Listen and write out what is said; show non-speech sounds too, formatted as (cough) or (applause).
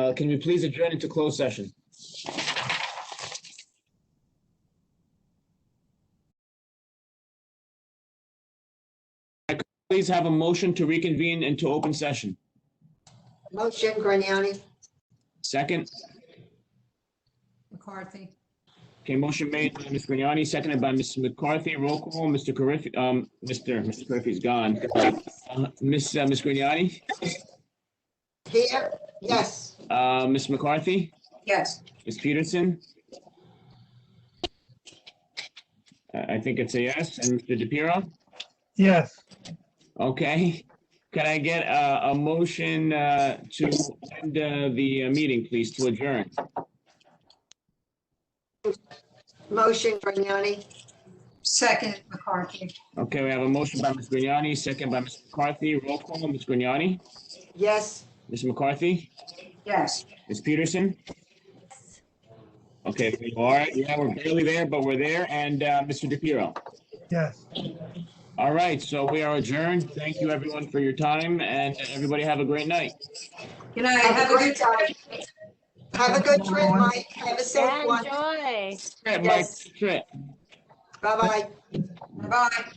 Uh, Can we please adjourn into closed session? Please have a motion to reconvene into open session. Motion, Grignani? Second, McCarthy, okay, motion made by Ms. Grignani, seconded by Ms. McCarthy. Roll call, Mr. Carriffy, um, Mr. Mr. Carriffy's gone. Uh, Ms. uh, Ms. Grignani, Here? Yes. uh, Ms. McCarthy, Yes. Ms. Peterson? I, I think it's a yes. And Mr. DePiero? Yes, Okay, (laughs) can I get a, a motion uh, to end uh, the uh, meeting, please, to adjourn? Motion, Grignani? second McCarthy, Okay, we have a motion by Ms. Grignani, second by Ms. McCarthy. Roll call, Ms. Grignani, Yes. Ms. McCarthy, yes. Ms. Peterson? Okay, we are, yeah, we're barely there, but we're there. And uh, Mr. DePiero? yes. All right, so we are adjourned. Thank you, everyone, for your time, and everybody have a great night. Good night, have a good time. Have a good trip, Mike. Have a safe one. Enjoy. Trip, Mike, Yes. trip. Bye-bye. Bye.